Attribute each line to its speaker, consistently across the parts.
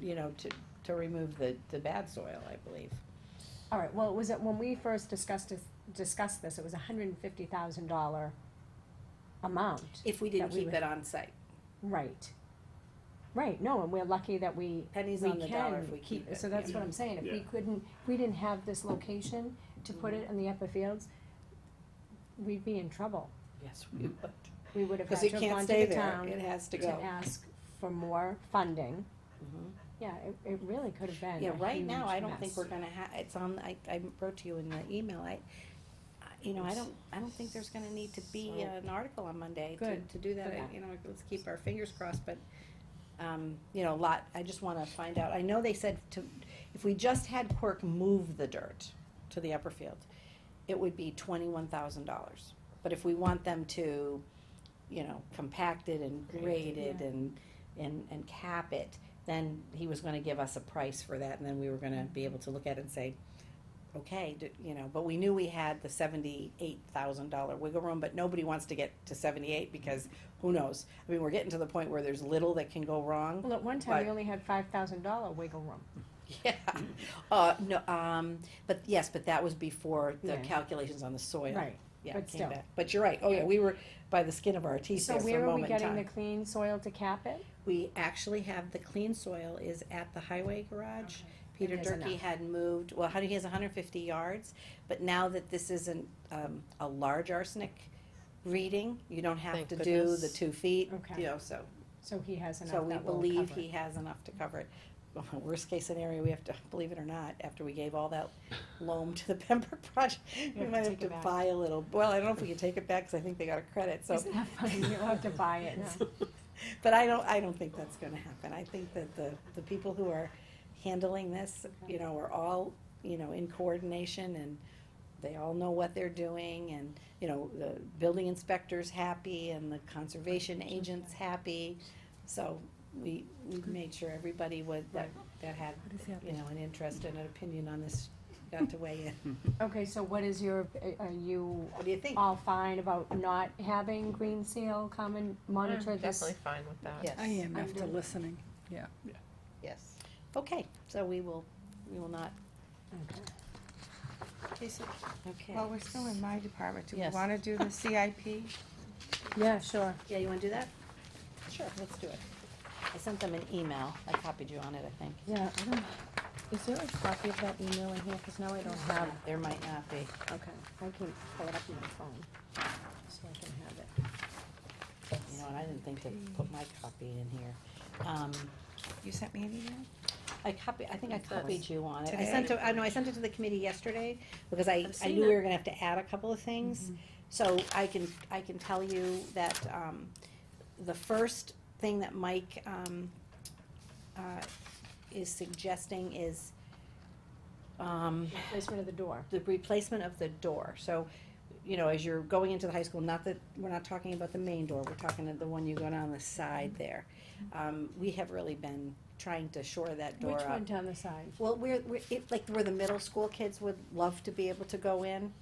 Speaker 1: you know, to, to remove the, the bad soil, I believe.
Speaker 2: All right, well, it was, at- when we first discussed, this- discussed this, it was a hundred and fifty thousand dollar amount.
Speaker 1: If we
Speaker 2: didn't That we keep would-
Speaker 1: it on site.
Speaker 2: Right. Right, no, and we're lucky that we,
Speaker 1: Pennies
Speaker 2: we
Speaker 1: on the dollar if
Speaker 2: can
Speaker 1: we
Speaker 2: keep,
Speaker 1: keep it.
Speaker 2: so that's what I'm saying, if we
Speaker 3: Yeah.
Speaker 2: couldn't, if we didn't have this location to put
Speaker 1: Mm-hmm.
Speaker 2: it in the upper fields, we'd be in trouble.
Speaker 1: Yes, we would.
Speaker 2: We would have had
Speaker 1: Cause
Speaker 2: to
Speaker 1: it
Speaker 2: have
Speaker 1: can't
Speaker 2: gone
Speaker 1: stay
Speaker 2: to the
Speaker 1: there,
Speaker 2: town
Speaker 1: it has to
Speaker 2: to
Speaker 1: go.
Speaker 2: ask for more funding.
Speaker 1: Mhm.
Speaker 2: Yeah, it, it really could have been
Speaker 1: Yeah,
Speaker 2: Mm-hmm. a
Speaker 1: right now,
Speaker 2: huge
Speaker 1: I don't think
Speaker 2: mess.
Speaker 1: we're gonna ha- it's on, I, I wrote to you in the email, I, I- you know, I don't, I don't think there's gonna need to be
Speaker 2: So-
Speaker 1: an article on Monday to,
Speaker 2: Good,
Speaker 1: to do that,
Speaker 2: good.
Speaker 1: I- you know, let's keep our fingers crossed, but, um, you know, a lot, I just wanna find out, I know they said to, if we just had Quirk move the dirt to the upper field, it would be twenty-one thousand dollars, but if we want them to, you know, compact it and grade it
Speaker 2: yeah.
Speaker 1: and, and, and cap it, then he was gonna give us a price for that, and then we were gonna be able to look at it and say, okay, d- you know, but we knew we had the seventy-eight thousand dollar wiggle room, but nobody wants to get to seventy-eight, because who knows? I mean, we're getting to the point where there's little that can go wrong.
Speaker 2: Well, at one time, we
Speaker 1: But-
Speaker 2: only had five thousand dollar wiggle room.
Speaker 1: Yeah, uh, no, um, but yes, but that was before the
Speaker 2: Yeah.
Speaker 1: calculations on the soil.
Speaker 2: Right.
Speaker 1: Yeah,
Speaker 2: but
Speaker 1: it came
Speaker 2: still.
Speaker 1: back, but you're right, oh yeah, we were by the skin of our teeth
Speaker 2: So
Speaker 1: there for a
Speaker 2: where are we
Speaker 1: moment in
Speaker 2: getting the
Speaker 1: time.
Speaker 2: clean soil to cap it?
Speaker 1: We actually have, the clean soil is at the highway garage. Peter
Speaker 2: And there's
Speaker 1: Durkee
Speaker 2: enough.
Speaker 1: had moved, well, how do- he has hundred fifty yards, but now that this isn't, um, a large arsenic reading, you don't have
Speaker 4: Thank
Speaker 1: to do the
Speaker 4: goodness.
Speaker 1: two feet,
Speaker 2: Okay.
Speaker 1: you know, so,
Speaker 2: So he has
Speaker 1: so
Speaker 2: enough
Speaker 1: we
Speaker 2: that will
Speaker 1: believe
Speaker 2: cover it.
Speaker 1: he has enough to cover it. Worst case scenario, we have to, believe it or not, after we gave all that loam to the Pembroke project, we
Speaker 2: have to
Speaker 1: might have
Speaker 2: take it
Speaker 1: to
Speaker 2: back.
Speaker 1: buy a little, well, I don't know if we can take it back, cause I think they got a credit, so.
Speaker 2: Isn't that funny? You'll have to buy it now.
Speaker 1: But I don't, I don't think that's gonna happen. I think that the, the people who are handling this, you know, are all, you know, in coordination and they all know what they're doing and, you know, the building inspector's happy and the conservation agent's happy. So we, we made sure everybody was, that, that had, you know, an interest and an opinion on this got to weigh in.
Speaker 2: Okay, so what is your, are you
Speaker 1: What do you think?
Speaker 2: all fine about not having green seal come and monitor this?
Speaker 4: Definitely fine with that.
Speaker 1: Yes.
Speaker 5: I am
Speaker 2: I'm
Speaker 5: after
Speaker 2: good.
Speaker 5: listening.
Speaker 4: Yes.
Speaker 1: Okay, so we will, we will not,
Speaker 2: Okay.
Speaker 6: Okay, so
Speaker 1: okay.
Speaker 6: while we're still in my department, do we
Speaker 4: Yes.
Speaker 6: wanna do the CIP?
Speaker 2: Yeah, sure.
Speaker 1: Yeah, you wanna do that? Sure, let's do it. I sent them an email, I copied you on it, I think.
Speaker 2: Yeah, I don't,
Speaker 4: Is there a copy of that email in here? Cause now I don't have.
Speaker 1: Um, There might not be.
Speaker 2: okay, I can pull it up on my phone, so I can have it.
Speaker 1: You know, and I didn't think to put my copy in here. Um,
Speaker 6: You sent me an email?
Speaker 1: I copy, I think I copied you on it. I
Speaker 6: Today?
Speaker 1: sent it, I know, I sent it to the committee yesterday, because I, I
Speaker 4: seen
Speaker 1: knew we were gonna have to add a couple of things. So I can, I can tell you that, um, the first thing that Mike, um, uh, is suggesting is, um,
Speaker 2: Placement of the door.
Speaker 1: the replacement of the door, so, you know, as you're going into the high school, not that, we're not talking about the main door, we're talking about the one you go down the side there. Um, we have really been trying to shore that door
Speaker 2: Which
Speaker 1: up.
Speaker 2: one down the side?
Speaker 1: Well, we're, we're, it, like, where the middle school kids would love to be able to go in,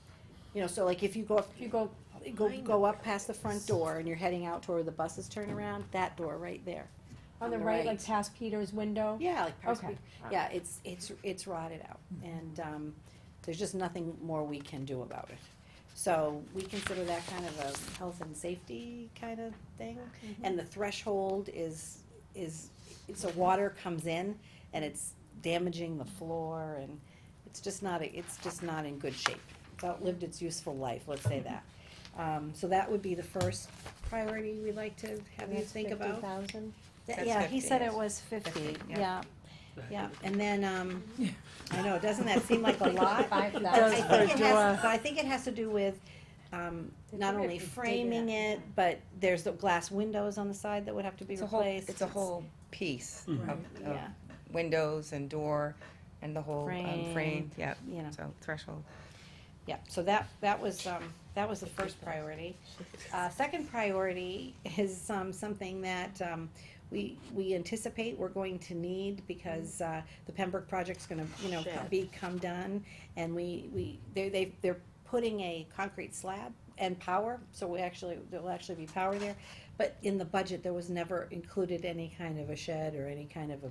Speaker 1: you know, so like, if you go up,
Speaker 2: You go,
Speaker 1: go, go up past the front door and you're heading out toward where the buses turn around, that door right there.
Speaker 2: on the right, like past Peter's window?
Speaker 1: Yeah, like Paris
Speaker 2: Okay. Hmm.
Speaker 1: Week. Yeah, it's, it's, it's rotted out, and, um, there's just nothing more we can do about it. So, we consider that kind of a health and safety kind of thing,
Speaker 2: Mm-hmm.
Speaker 1: and the threshold is, is, so water comes in, and it's damaging the floor, and it's just not, a- it's just not in good shape. It's outlived its useful life, let's say that. Um, so that would be the first priority we'd like to have you
Speaker 2: That's
Speaker 1: think about.
Speaker 2: Fifty thousand?
Speaker 1: Th-
Speaker 6: That's
Speaker 1: Yeah, he
Speaker 6: 50,
Speaker 1: said it
Speaker 6: yes.
Speaker 1: was fifty,
Speaker 6: 50,
Speaker 1: yeah,
Speaker 6: yeah.
Speaker 1: yeah, and then, um, I know, doesn't that seem like a lot?
Speaker 2: Five
Speaker 1: But I
Speaker 2: thousand.
Speaker 1: think it has, but I think it has to do with, um,
Speaker 2: Did
Speaker 1: not
Speaker 2: we
Speaker 1: only
Speaker 2: have to dig it
Speaker 1: framing
Speaker 2: up?
Speaker 1: it, but there's the glass windows on the side that would have to be
Speaker 6: It's a whole,
Speaker 1: replaced.
Speaker 6: it's a whole piece of, of
Speaker 1: Yeah,
Speaker 6: windows and door and the whole um,
Speaker 1: Frame.
Speaker 6: frame, yeah,
Speaker 1: you know,
Speaker 6: so threshold.
Speaker 1: yeah, so that, that was, um, that was the first priority. Uh, second priority is, um, something that, um, we, we anticipate we're going to need because, uh, the Pembroke project's gonna, you know,
Speaker 4: Shed.
Speaker 1: become done. And we, we, they, they, they're putting a concrete slab and power, so we actually, there'll actually be power there. But in the budget, there was never included any kind of a shed or any kind of a